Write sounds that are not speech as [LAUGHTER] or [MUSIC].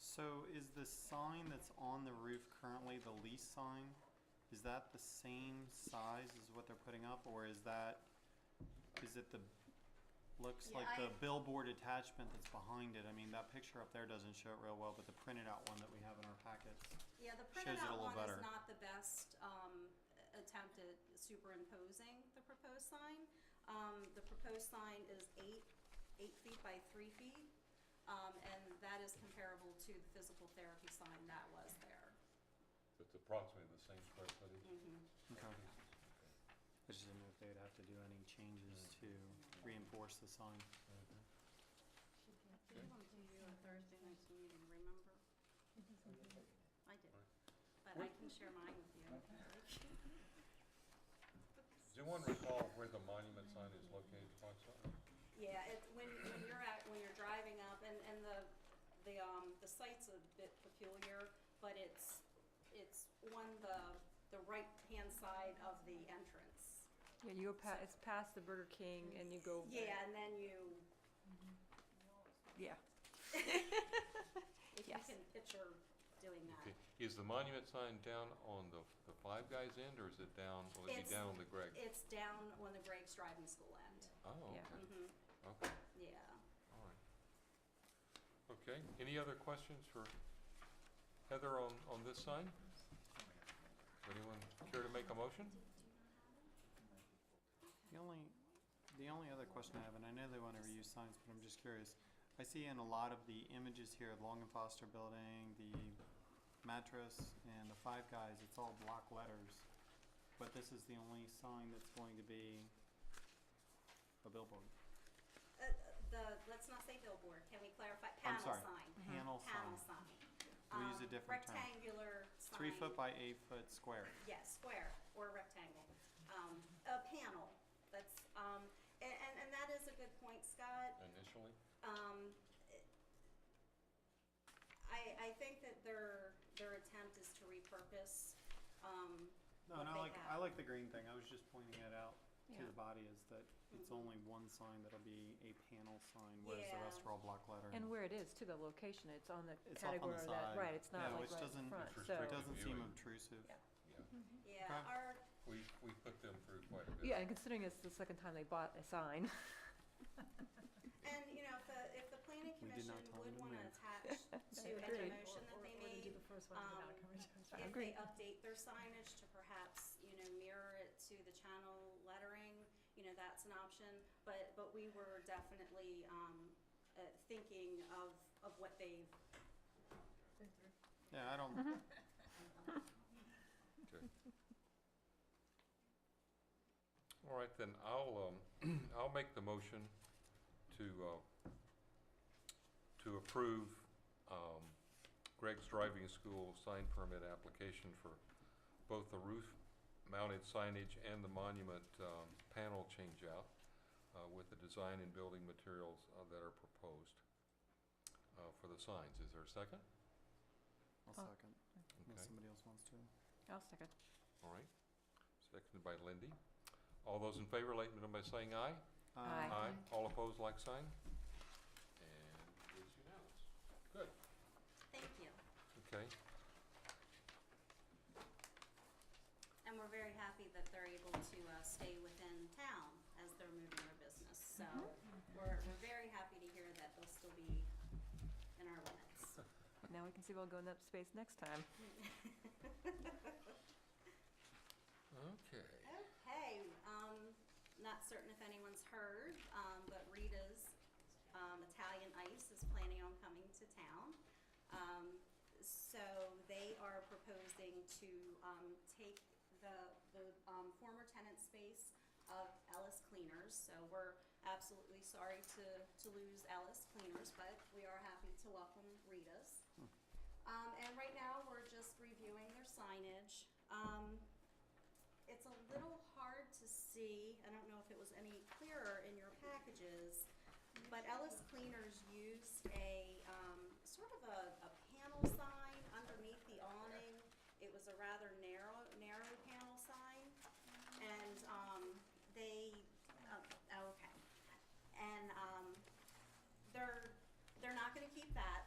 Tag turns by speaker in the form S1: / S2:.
S1: So is the sign that's on the roof currently the lease sign? Is that the same size as what they're putting up, or is that, is it the, looks
S2: Yeah,
S1: like the
S2: I-
S1: billboard attachment that's behind it? I mean, that picture up there doesn't show it real well, but the printed out one that we have in our packets.
S2: Yeah, the
S1: Shows
S2: printed
S1: it a
S2: out
S1: little
S2: one
S1: better.
S2: is not the best um, attempt at superimposing the proposed sign. Um, The proposed sign is eight, eight feet by three feet, um, and that is comparable to the physical therapy sign that was there.
S3: It's approximately the same square footage.
S1: Okay. I just didn't know if they'd have to do any changes to reinforce the sign.
S2: Give them to you on Thursday night's meeting, remember? I did, but I can share mine with [LAUGHS] you.
S3: Does anyone recall where the monument sign is located, Foxtel?
S2: Yeah, it, when, when you're at, when you're driving up, and, and the, the, um, the site's a bit peculiar, but it's, it's on the, the right-hand side of the entrance.
S4: Yeah, you go past, it's past the Burger King and you go.
S2: Yeah, and then you,
S4: Yeah.
S2: [LAUGHS] if you
S4: Yes.
S2: can picture doing that.
S3: Okay, is the monument sign down on the, the Five Guys end, or is it down, will it be
S2: It's-
S3: down on the Greg?
S2: It's down on the Greg's Driving School end.
S3: Oh, okay,
S4: Yeah.
S2: hmm
S3: okay,
S2: yeah.
S3: all right. Okay, any other questions for Heather on, on this sign? Would Anyone care to make a motion?
S1: The only, the only other question I have, and I know they want to reuse signs, but I'm just curious. I see in a lot of the images here, the Long and Foster Building, the mattress, and the Five Guys, it's all block letters. But this is the only sign that's going to be a billboard.
S2: Uh, the, let's not say billboard, can we clarify,
S1: I'm
S2: panel sign?
S1: sorry,
S4: Mm-hmm.
S1: panel
S2: Panel
S1: sign.
S2: sign.
S1: We'll use
S2: Um,
S1: a different term.
S2: Rectangular sign.
S1: Three foot by eight foot square.
S2: Yes, square or rectangle. Um, a panel, that's, um, a- and, and that is a good point, Scott.
S3: Initially?
S2: Um, it- I, I think that their, their attempt is to repurpose, um,
S1: No,
S2: what
S1: and I
S2: they
S1: like, I
S2: have.
S1: like the green thing. I was just pointing that out to
S4: Yeah.
S1: the body is that it's
S2: Mhm.
S1: only one sign that'll be a panel sign, whereas the
S2: Yeah.
S1: rest are all block letter.
S4: And where it is too, the location, it's on the
S1: It's off on the
S4: category of that,
S1: side.
S4: right, it's not
S1: Yeah,
S4: like
S1: which
S4: right
S1: doesn't-
S4: in front,
S3: It's
S4: so.
S1: It doesn't seem
S3: Viewing.
S1: obtrusive.
S4: Yeah.
S3: Yeah,
S2: yeah,
S1: Okay.
S2: our,
S3: we, we put them through quite a bit.
S4: Yeah, and considering it's the second time they bought a sign, [LAUGHS]
S2: and, you know, if the, if the planning
S1: We did
S2: commission
S1: not tell them
S2: would
S1: to
S2: wanna
S1: move.
S5: [LAUGHS]
S2: attach to any
S4: Agreed.
S2: motion that they
S5: Or to do
S2: made,
S5: the first one without
S2: um,
S5: coming to
S2: if
S5: us.
S4: Agreed.
S2: they update their signage to perhaps, you know, mirror it to the channel lettering, you know, that's an option. But, but we were definitely, um, uh, thinking of, of what they,
S1: Yeah, I don't,
S4: Mm-hmm.
S3: Okay. All right, then I'll, um, [CLEARS THROAT] I'll make the motion to, uh, to approve, um, Greg's Driving School sign permit application for both the roof mounted signage and the monument, um, panel changeout, uh, with the design and building materials uh, that are proposed, uh, for the signs. Is there a second?
S1: I'll
S4: Oh.
S1: second,
S3: Okay.
S1: unless somebody else wants to.
S4: I'll second.
S3: All right, seconded by Lindy. All those in favor, let me know by saying aye.
S1: Uh,
S4: Aye.
S3: All opposed, like sign? And it is unanimous. Good,
S2: thank you.
S3: okay.
S2: And we're very happy that they're able to, uh, stay within town as they're moving their business. So we're, we're very happy to hear that they'll still be in our limits.
S4: Now we can see we'll go in that space next time.
S3: Okay.
S2: Okay, um, not certain if anyone's heard, um, but Rita's, um, Italian Ice is planning on coming to town. Um, so they are proposing to, um, take the, the, um, former tenant space of Ellis Cleaners. So we're absolutely sorry to, to lose Ellis Cleaners, but we are happy to welcome Rita's. Um, and right now, we're just reviewing their signage. Um, it's a little hard to see, I don't know if it was any clearer in your packages, but Ellis Cleaners used a, um, sort of a, a panel sign underneath the awning. It was a rather narrow, narrow panel sign, and, um, they, oh, okay. And, um, they're, they're not gonna keep that,